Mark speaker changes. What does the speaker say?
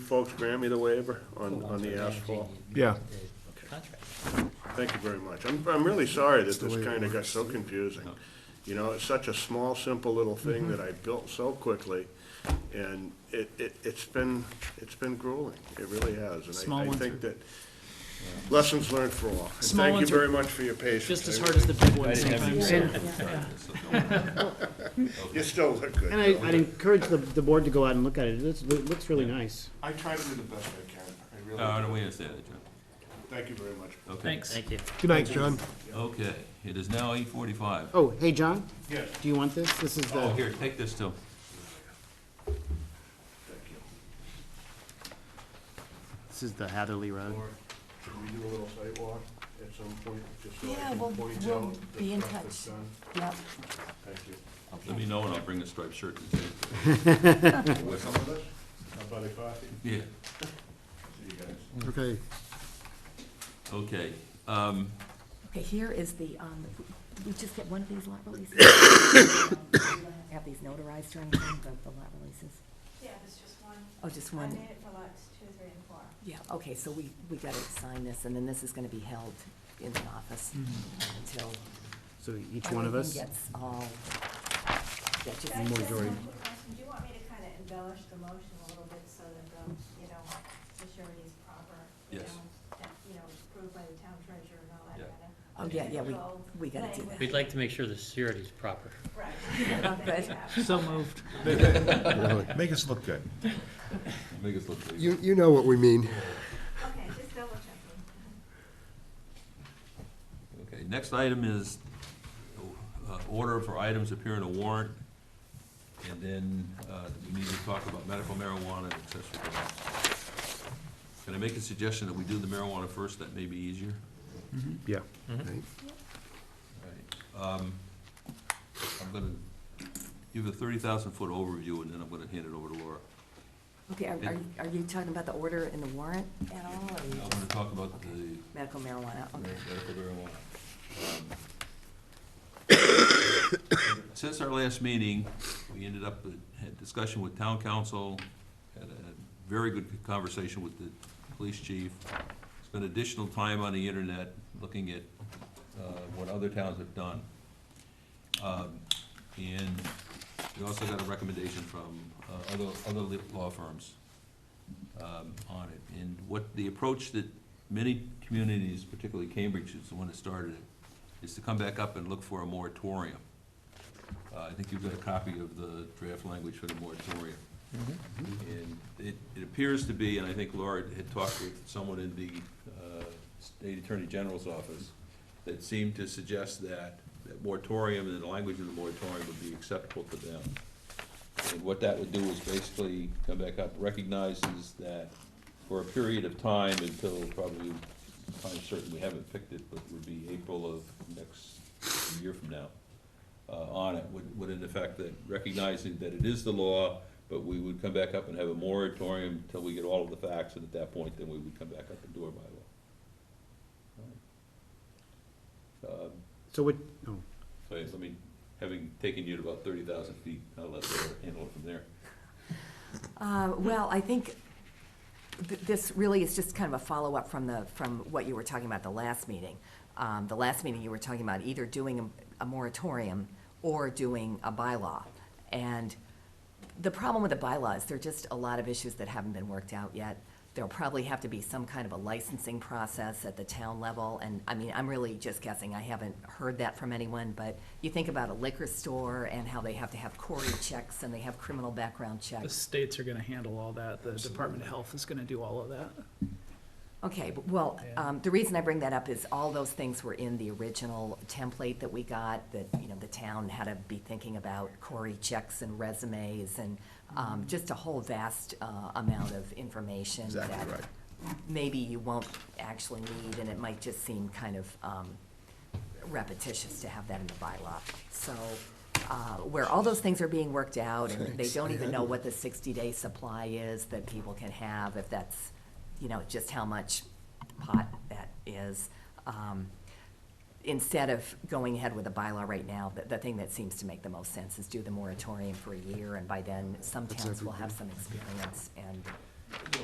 Speaker 1: folks grant me the waiver on, on the asphalt?
Speaker 2: Yeah.
Speaker 3: Contract.
Speaker 1: Thank you very much. I'm, I'm really sorry that
Speaker 2: the
Speaker 1: this
Speaker 2: way it
Speaker 1: kinda got so confusing. You know, it's such a small, simple little thing
Speaker 3: Mm-hmm.
Speaker 1: that I built so quickly, and it, it, it's been, it's been grueling. It really has, and
Speaker 3: Small
Speaker 1: I, I
Speaker 3: ones
Speaker 1: think
Speaker 3: are-
Speaker 1: that lessons learned for all. And
Speaker 3: Small
Speaker 1: thank you
Speaker 3: ones are
Speaker 1: very much for your patience.
Speaker 3: Just as
Speaker 1: I
Speaker 3: hard
Speaker 1: really-
Speaker 3: as the big ones
Speaker 4: didn't have you
Speaker 3: sometimes.
Speaker 4: ready.
Speaker 1: You still look good.
Speaker 4: And I, I'd encourage the, the board to go out and look at it, it looks, it looks really nice.
Speaker 1: I try to do the best I can. I really
Speaker 5: Uh,
Speaker 1: do.
Speaker 5: we understand that, John.
Speaker 1: Thank you very much.
Speaker 5: Okay.
Speaker 3: Thanks.
Speaker 4: Thank you.
Speaker 2: Good night, John.
Speaker 5: Okay, it is now eight forty-five.
Speaker 4: Oh, hey, John,
Speaker 1: Yes,
Speaker 4: do you want this? This is
Speaker 5: Oh,
Speaker 4: the,
Speaker 5: here, take this too.
Speaker 1: thank you.
Speaker 4: this is the Hatherley Road.
Speaker 1: Or should we do a little sidewalk at some point, just so I
Speaker 6: Yeah,
Speaker 1: can
Speaker 6: we'll-
Speaker 1: point
Speaker 6: we'll
Speaker 1: out the
Speaker 6: be in
Speaker 1: stuff that's
Speaker 6: touch.
Speaker 1: done?
Speaker 6: Yep.
Speaker 1: Thank you.
Speaker 5: Let me know and I'll bring a striped shirt and take it.
Speaker 1: Want some of this? How about a coffee?
Speaker 5: Yeah.
Speaker 1: See you guys.
Speaker 2: Okay.
Speaker 5: Okay, um,
Speaker 6: Okay, here is the, um, we just get one of these lot releases. Um, we don't Have these notarized or anything, the, the lot releases?
Speaker 7: Yeah, there's just one.
Speaker 6: Oh, just
Speaker 7: I
Speaker 6: one?
Speaker 7: made it for lots two, three, and four.
Speaker 6: Yeah, okay, so we, we gotta sign this, and then this is gonna be held in the office until.
Speaker 4: So Mm-hmm. each one of us?
Speaker 6: everything Gets all, yeah, just.
Speaker 7: Can I just ask one quick question? Do you want me to kind of embellish the motion a little bit so that the, you know, the surety is proper? you
Speaker 5: Yes.
Speaker 7: know, that, You know, it's approved by the town treasurer and all that
Speaker 5: Yeah.
Speaker 7: kind of.
Speaker 6: Oh, yeah, yeah, we, we gotta do
Speaker 8: We'd like to make sure the security's proper.
Speaker 7: Right.
Speaker 6: that. Good.
Speaker 3: So moved.
Speaker 9: Make us look good.
Speaker 5: make us look.
Speaker 2: You, you know what we mean.
Speaker 7: Okay, just double checking.
Speaker 5: Okay, next item is uh, order for items appearing on warrant. And then uh, we need to talk about medical marijuana and accessory drugs. Can I make a suggestion that we do the marijuana first? That may be easier.
Speaker 2: Yeah.
Speaker 5: All right. Um, I'm gonna give a thirty thousand foot overview and then I'm gonna hand it over to Laura.
Speaker 6: Okay, are, are you- are you talking about the order and the warrant at all, or you
Speaker 5: I
Speaker 6: just
Speaker 5: wanna talk about the
Speaker 6: medical marijuana? Okay.
Speaker 5: Medical marijuana. Um, Since our last meeting, we ended up, with- had discussion with town council, had a very good conversation with the police chief. Spent additional time on the internet, looking at uh, what other towns have done. Um, And we also got a recommendation from uh, other, other li- law firms um, on it. And what, the approach that many communities, particularly Cambridge, is the one that started it, is to come back up and look for a moratorium. Uh, I think you've got a copy of the draft language for the moratorium. And it, it appears to be, and I think Laura had talked with someone in the uh, State Attorney General's office, that seemed to suggest that, that moratorium and the language of the moratorium would be acceptable to them. And what that would do is basically come back up, recognizes that for a period of time until probably, I'm certain, we haven't picked it, but it would be April of next year from now, uh, on it, would, would in effect that recognizing that it is the law, but we would come back up and have a moratorium until we get all of the facts, and at that point, then we would come back up and do our bylaw. Um,
Speaker 4: So what, oh,
Speaker 5: so yes, I mean, having taken you to about thirty thousand feet, I'll let Laura handle it from there.
Speaker 6: Uh, Well, I think th- this really is just kind of a follow-up from the, from what you were talking about the last meeting. Um, The last meeting, you were talking about either doing a- a moratorium or doing a bylaw. And the problem with the bylaw is there are just a lot of issues that haven't been worked out yet. There'll probably have to be some kind of a licensing process at the town level, and, I mean, I'm really just guessing, I haven't heard that from anyone, but you think about a liquor store and how they have to have query checks and they have criminal background checks.
Speaker 10: The states are gonna handle all that, the Department of Health is gonna do all of that.
Speaker 6: Okay, but- well,
Speaker 10: Yeah.
Speaker 6: um, the reason I bring that up is all those things were in the original template that we got, that, you know, the town had to be thinking about query checks and resumes and, um, just a whole vast, uh, amount of information that
Speaker 9: Exactly right.
Speaker 6: maybe you won't actually need, and it might just seem kind of, um, repetitious to have that in the bylaw. So, uh, where all those things are being worked out, and they don't even know what the sixty-day supply is that people can have, if that's, you know, just how much pot that is. Um, Instead of going ahead with a bylaw right now, the, the thing that seems to make the most sense is do the moratorium for a year, and by then, some towns will have some experience, and